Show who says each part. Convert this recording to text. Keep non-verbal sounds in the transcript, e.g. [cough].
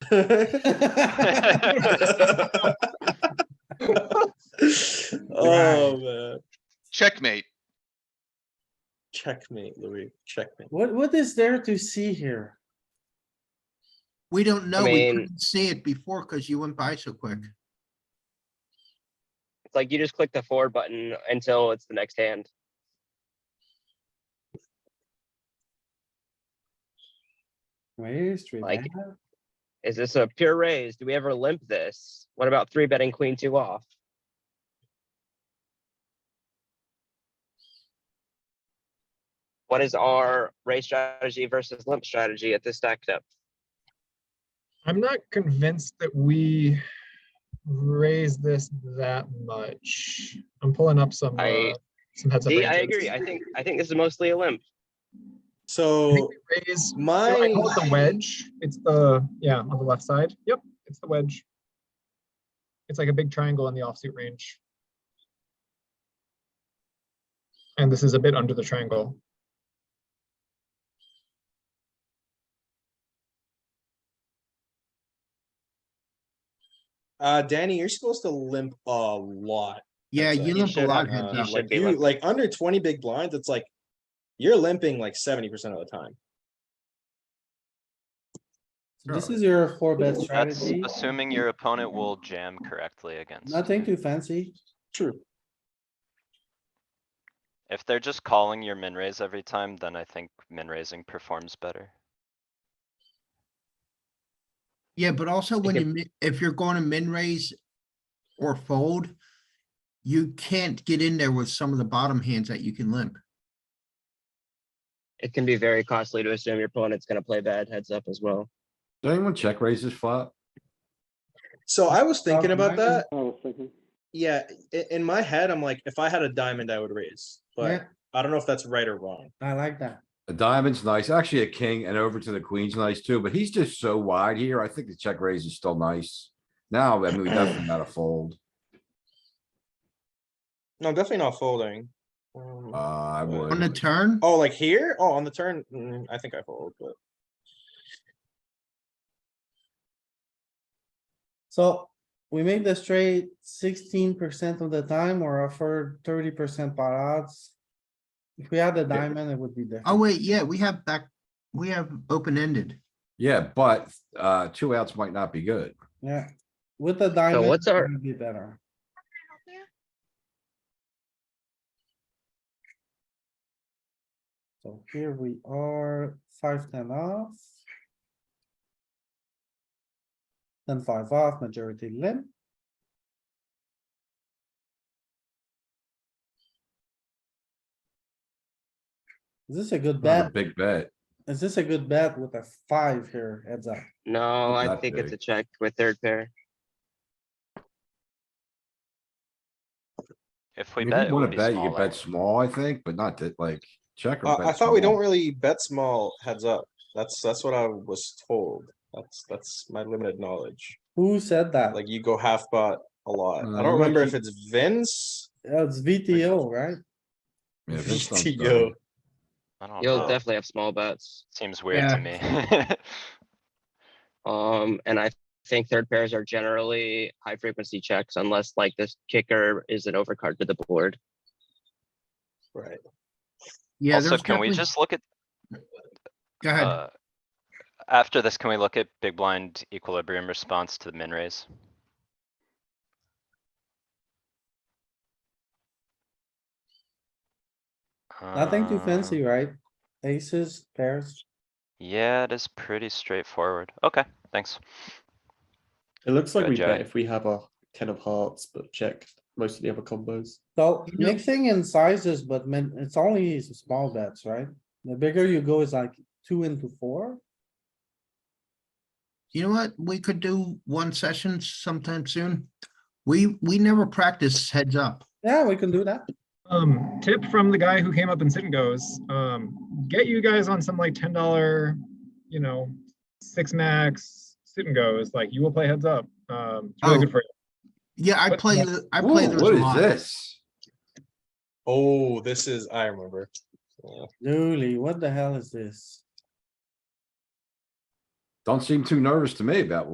Speaker 1: [laughs] Oh, man.
Speaker 2: Checkmate.
Speaker 1: Checkmate, Louis, checkmate. What, what is there to see here?
Speaker 3: We don't know. We
Speaker 4: mean-
Speaker 3: couldn't see it before because you went by so quick.
Speaker 4: It's like you just click the forward button until it's the next hand.
Speaker 1: Raise, three
Speaker 4: Like-
Speaker 1: bet.
Speaker 4: Is this a pure raise? Do we ever limp this? What about three betting queen two off? What is our raise strategy versus limp strategy at this stack depth?
Speaker 5: I'm not convinced that we raise this that much. I'm pulling up some,
Speaker 4: I-
Speaker 5: uh, some heads up.
Speaker 4: See, I
Speaker 5: ranges.
Speaker 4: agree. I think, I think this is mostly a limp.
Speaker 5: I think
Speaker 1: So
Speaker 5: we Raise, I
Speaker 1: my,
Speaker 5: call it the wedge. It's the, yeah, on the left side. Yep, it's the wedge. It's like a big triangle in the offsuit range. And this is a bit under the triangle.
Speaker 1: uh, Danny, you're supposed to limp a lot.
Speaker 3: Yeah,
Speaker 1: That's, uh,
Speaker 3: you
Speaker 1: you
Speaker 3: limp a
Speaker 4: should,
Speaker 3: lot.
Speaker 4: uh,
Speaker 3: heads
Speaker 1: Uh,
Speaker 3: up.
Speaker 4: should
Speaker 1: Like
Speaker 4: be
Speaker 1: you,
Speaker 4: limping.
Speaker 1: like under twenty big blinds, it's like, you're limping like seventy percent of the time. This
Speaker 3: Totally.
Speaker 1: is your four bet
Speaker 6: That's
Speaker 1: strategy.
Speaker 6: assuming your opponent will jam correctly against.
Speaker 7: Nothing
Speaker 6: you.
Speaker 7: too fancy.
Speaker 1: True.
Speaker 6: If they're just calling your min raise every time, then I think min raising performs better.
Speaker 3: Yeah, but also when you, mi- if you're going to min raise or fold, you can't get in there with some of the bottom hands that you can limp.
Speaker 4: It can be very costly to assume your opponent's gonna play bad heads up as well.
Speaker 8: Does anyone check raise this flop?
Speaker 1: So I was thinking about
Speaker 7: imagine-
Speaker 1: that. Yeah, i- in my head, I'm like, if I had a diamond, I would raise, but
Speaker 7: Yeah.
Speaker 1: I don't know if that's right or wrong.
Speaker 7: I like that.
Speaker 8: A diamond's nice, actually a king and over to the queen's nice too, but he's just so wide here. I think the check raise is still nice. Now, I mean, we definitely gotta fold.
Speaker 1: No, definitely not folding. Um,
Speaker 8: Uh, I
Speaker 3: On the
Speaker 8: would.
Speaker 3: turn,
Speaker 1: Oh, like here? Oh, on the turn, mm, I think I fold, but
Speaker 7: So we make the straight sixteen percent of the time or offer thirty percent pot odds. If we had the diamond, it would be different.
Speaker 3: oh wait, yeah, we have back, we have open ended.
Speaker 8: Yeah, but, uh, two outs might not be good.
Speaker 7: Yeah, with the diamond.
Speaker 4: what's our-
Speaker 7: it'd Be better. So here we are, five, ten off. Then five off, majority limp. Is this a good
Speaker 8: Not a
Speaker 7: bet?
Speaker 8: big bet.
Speaker 7: Is this a good bet with a five here heads up?
Speaker 4: No, I
Speaker 8: Not
Speaker 4: think it's
Speaker 8: big.
Speaker 4: a check with third pair.
Speaker 6: If we
Speaker 8: If you
Speaker 6: bet, it
Speaker 8: wanna
Speaker 6: would be
Speaker 8: bet, you
Speaker 6: small.
Speaker 8: can bet small, I think, but not that, like, check
Speaker 1: uh,
Speaker 8: or bet.
Speaker 1: I thought we
Speaker 8: small.
Speaker 1: don't really bet small heads up. That's, that's what I was told. That's, that's my limited knowledge.
Speaker 7: Who said that?
Speaker 1: Like you go half pot a lot.
Speaker 8: Uh,
Speaker 1: I
Speaker 8: what
Speaker 1: don't remember
Speaker 8: you-
Speaker 1: if it's Vince.
Speaker 7: Yeah, It's VTO, right?
Speaker 8: Yeah,
Speaker 1: [laughs]
Speaker 8: Vince don't
Speaker 1: VTO.
Speaker 8: know.
Speaker 6: I don't
Speaker 4: You'll
Speaker 6: know.
Speaker 4: definitely have small bets.
Speaker 6: Seems weird to me. [laughs]
Speaker 4: Um, and I think third pairs are generally high frequency checks unless like this kicker is an overcard to the board.
Speaker 1: Right.
Speaker 3: Yeah.
Speaker 6: Also,
Speaker 3: there's
Speaker 6: can we
Speaker 3: definitely-
Speaker 6: just look at,
Speaker 3: Go ahead.
Speaker 6: uh, after this, can we look at big blind equilibrium response to the min raise?
Speaker 7: Nothing too
Speaker 3: Um,
Speaker 6: Uh,
Speaker 7: fancy, right? Aces, pairs.
Speaker 6: Yeah, it is pretty straightforward. Okay, thanks.
Speaker 9: It looks like
Speaker 6: Good
Speaker 9: we
Speaker 6: job.
Speaker 9: bet if we have our ten of hearts, but check most of the other combos.
Speaker 7: So
Speaker 3: You know-
Speaker 7: mixing in sizes, but man, it's only s- small bets, right? The bigger you go is like two into four.
Speaker 3: You know what? We could do one session sometime soon. We, we never practice heads up.
Speaker 7: Yeah, we can do that.
Speaker 5: Um, tip from the guy who came up in Sit and Goes, um, get you guys on some like ten dollar, you know, six max Sit and Goes, like you will play heads up. Um, it's really
Speaker 3: Oh.
Speaker 5: good for you.
Speaker 3: Yeah, I
Speaker 5: What-
Speaker 3: play, the- I play
Speaker 8: Ooh,
Speaker 3: those
Speaker 8: What
Speaker 3: a
Speaker 8: is
Speaker 3: lot.
Speaker 8: this?
Speaker 1: Oh, this is, I remember. Yeah.
Speaker 7: Dooley, what the hell is this?
Speaker 8: Don't seem too nervous to me about